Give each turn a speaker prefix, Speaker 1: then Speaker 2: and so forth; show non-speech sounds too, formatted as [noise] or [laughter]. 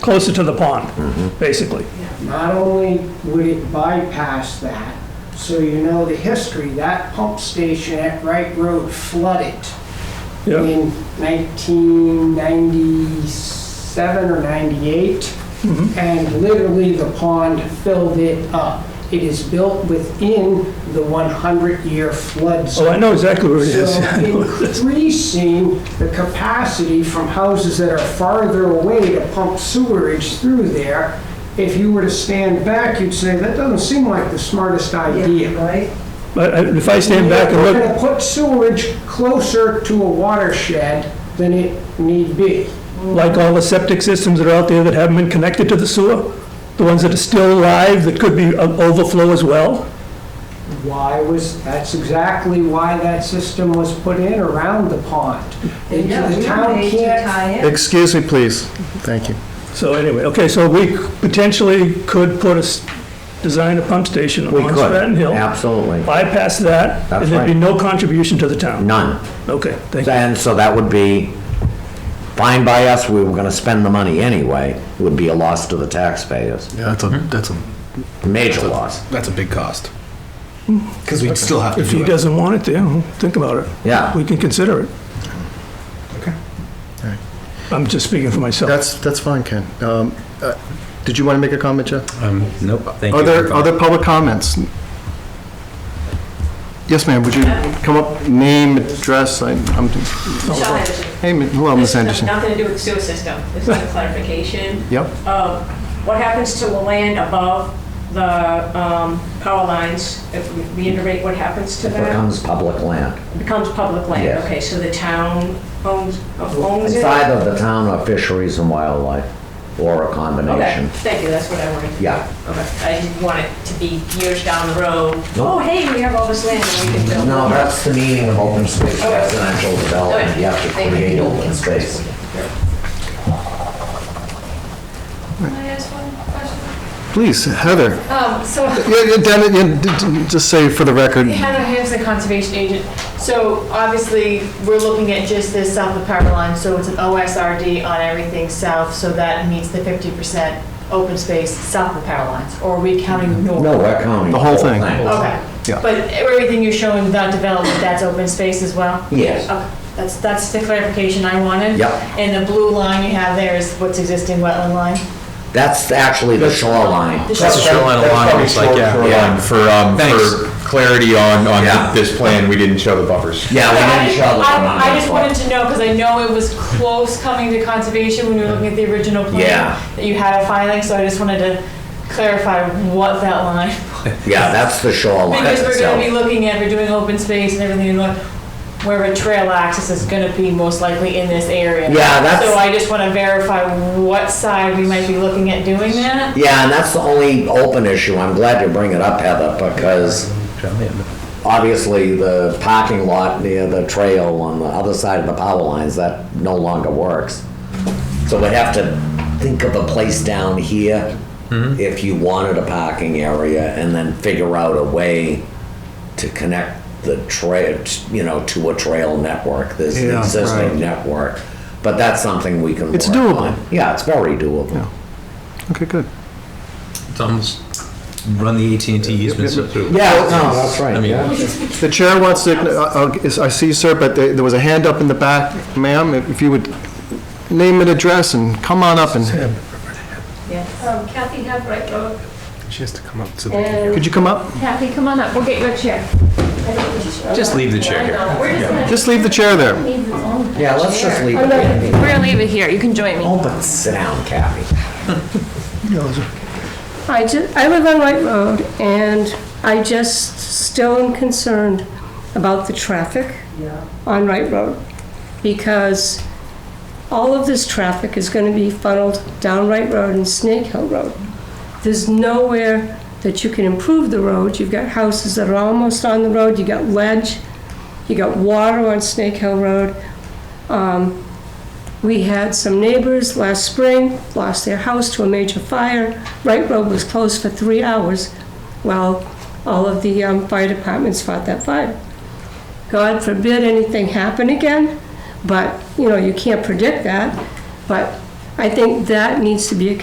Speaker 1: closer to the
Speaker 2: Mm-hmm.
Speaker 1: pond, basically.
Speaker 3: Not only would it bypass that, so you know the history, that pump station at Wright Road flooded
Speaker 1: Yeah,
Speaker 3: in 1997 or 98,
Speaker 1: Mm-hmm.
Speaker 3: and literally the pond filled it up. It is built within the 100-year flood zone.
Speaker 1: oh, I know exactly where it is. [laughs]
Speaker 3: So increasing the capacity from houses that are farther away to pump sewerage through there, if you were to stand back, you'd say, that doesn't seem like the smartest idea.
Speaker 4: Right?
Speaker 1: But I- if I stand back and
Speaker 3: We're
Speaker 1: look,
Speaker 3: gonna put sewerage closer to a watershed than it need be.
Speaker 1: like all the septic systems that are out there that haven't been connected to the sewer, the ones that are still alive, that could be of overflow as well,
Speaker 3: Why was, that's exactly why that system was put in around the pond. And
Speaker 4: Yeah,
Speaker 3: the
Speaker 4: we
Speaker 3: town
Speaker 4: made to
Speaker 3: can't
Speaker 4: tie in.
Speaker 5: Excuse me, please. Thank you.
Speaker 1: so anyway, okay, so we potentially could put a, s- design a pump station
Speaker 2: We
Speaker 1: on
Speaker 2: could,
Speaker 1: Stratton Hill.
Speaker 2: absolutely.
Speaker 1: Bypass that, and
Speaker 2: That's
Speaker 1: there'd be
Speaker 2: right.
Speaker 1: no contribution to the town.
Speaker 2: None.
Speaker 1: Okay, thank you.
Speaker 2: And so that would be fine by us, we were gonna spend the money anyway, It would be a loss to the taxpayers,
Speaker 5: Yeah, that's a, that's a,
Speaker 2: major loss,
Speaker 6: That's a big cost. Because we'd still have to
Speaker 1: If he
Speaker 6: do it.
Speaker 1: doesn't want it there, well, think about it.
Speaker 2: yeah.
Speaker 1: We can consider it.
Speaker 6: Okay.
Speaker 5: Alright.
Speaker 1: I'm just speaking for myself.
Speaker 5: that's, that's fine, Ken. Um, uh, Did you want to make a comment, Jeff?
Speaker 6: Um, Nope, thank
Speaker 5: Are
Speaker 6: you.
Speaker 5: there, are there public comments? Yes, ma'am, would you come up, name, address, I- I'm,
Speaker 7: Michelle Henderson.
Speaker 5: hey, ma- hello, Ms.
Speaker 7: This has
Speaker 5: Anderson.
Speaker 7: Nothing to do with the sewer system. This is a clarification
Speaker 5: Yep,
Speaker 7: of what happens to the land above the um, power lines. If we reiterate what happens to
Speaker 2: It
Speaker 7: that,
Speaker 2: becomes public land.
Speaker 7: it becomes public land.
Speaker 2: Yes.
Speaker 7: Okay, so the town owns, owns
Speaker 2: It's
Speaker 7: it?
Speaker 2: either the town or fisheries and wildlife, or a
Speaker 7: Okay,
Speaker 2: combination.
Speaker 7: thank you, that's what I wanted.
Speaker 2: Yeah.
Speaker 7: Okay, I didn't want it to be years down the road.
Speaker 2: No.
Speaker 7: Oh, hey, we have all this land and we can build.
Speaker 2: No, that's the meaning of open space residential development, you have to
Speaker 7: Thank
Speaker 2: create open space.
Speaker 8: Can I ask one question?
Speaker 5: please, Heather.
Speaker 8: Um, so
Speaker 5: Yeah, yeah, Dan, yeah, d- d- just say for the record,
Speaker 8: Hannah Hamp's a conservation agent. So obviously, we're looking at just this south of power line, so it's an OSRD on everything south, so that meets the fifty percent open space south of power lines, or are we counting north?
Speaker 2: No, we're counting.
Speaker 5: The whole thing.
Speaker 8: Okay.
Speaker 5: Yeah.
Speaker 8: But everything you're showing without development, that's open space as well?
Speaker 2: Yes,
Speaker 8: Okay, that's, that's the clarification I wanted.
Speaker 2: Yep.
Speaker 8: And the blue line you have there is what's existing wetland line?
Speaker 2: that's actually the shoreline.
Speaker 8: The
Speaker 9: That's a shoreline alignment, it's like, yeah,
Speaker 2: Yeah.
Speaker 9: yeah, for, um,
Speaker 2: Thanks.
Speaker 9: for clarity on,
Speaker 2: Yeah.
Speaker 9: on this plan, we didn't show the buffers.
Speaker 2: Yeah, we need each other on that
Speaker 8: I I just
Speaker 2: one.
Speaker 8: wanted to know, because I know it was close coming to conservation when we were looking at the original plan.
Speaker 2: Yeah.
Speaker 8: That you had a filing, so I just wanted to clarify what that
Speaker 2: [laughs]
Speaker 8: line.
Speaker 2: Yeah, that's the shoreline
Speaker 8: Because we're gonna be
Speaker 2: itself.
Speaker 8: looking at, we're doing open space and everything, and look, where a trail access is gonna be most likely in this area.
Speaker 2: Yeah, that's-
Speaker 8: So I just wanna verify what side we might be looking at doing that.
Speaker 2: Yeah, and that's the only open issue. I'm glad you bring it up, Heather, because obviously the parking lot near the trail on the other side of the power lines, that no longer works. So we'd have to think of a place down here
Speaker 5: Mm-hmm.
Speaker 2: if you wanted a parking area and then figure out a way to connect the trail, you know, to a trail network, this
Speaker 5: Yeah, right.
Speaker 2: existing network. But that's something we can
Speaker 5: It's
Speaker 2: work
Speaker 5: doable.
Speaker 2: on. Yeah, it's very doable.
Speaker 5: okay, good.
Speaker 10: It's almost run the AT&T easements through.
Speaker 2: Yeah, no, that's right.
Speaker 10: I mean,
Speaker 2: yeah.
Speaker 5: The chair wants to, uh, uh, is- I see you, sir, but there there was a hand up in the back. Ma'am, if if you would name and address and come on up and,
Speaker 7: Um, Kathy Habright, uh,
Speaker 6: She has to come up to the.
Speaker 5: could you come up?
Speaker 7: Kathy, come on up, we'll get you a chair.
Speaker 10: Just leave the chair here.
Speaker 5: Just leave the chair there.
Speaker 2: Yeah, let's just leave it.
Speaker 7: We're gonna leave it here, you can join me.
Speaker 2: Oh, but sit down, Kathy.
Speaker 11: I just, I live on White Road, and I just still am concerned about the traffic on Wright Road, because all of this traffic is gonna be funneled down Wright Road and Snake Hill Road. There's nowhere that you can improve the road, you've got houses that are almost on the road, you got ledge, you got water on Snake Hill Road. Um, we had some neighbors last spring lost their house to a major fire. Wright Road was closed for three hours while all of the um, fire departments fought that fire. God forbid anything happen again, but, you know, you can't predict that. But I think that needs to be a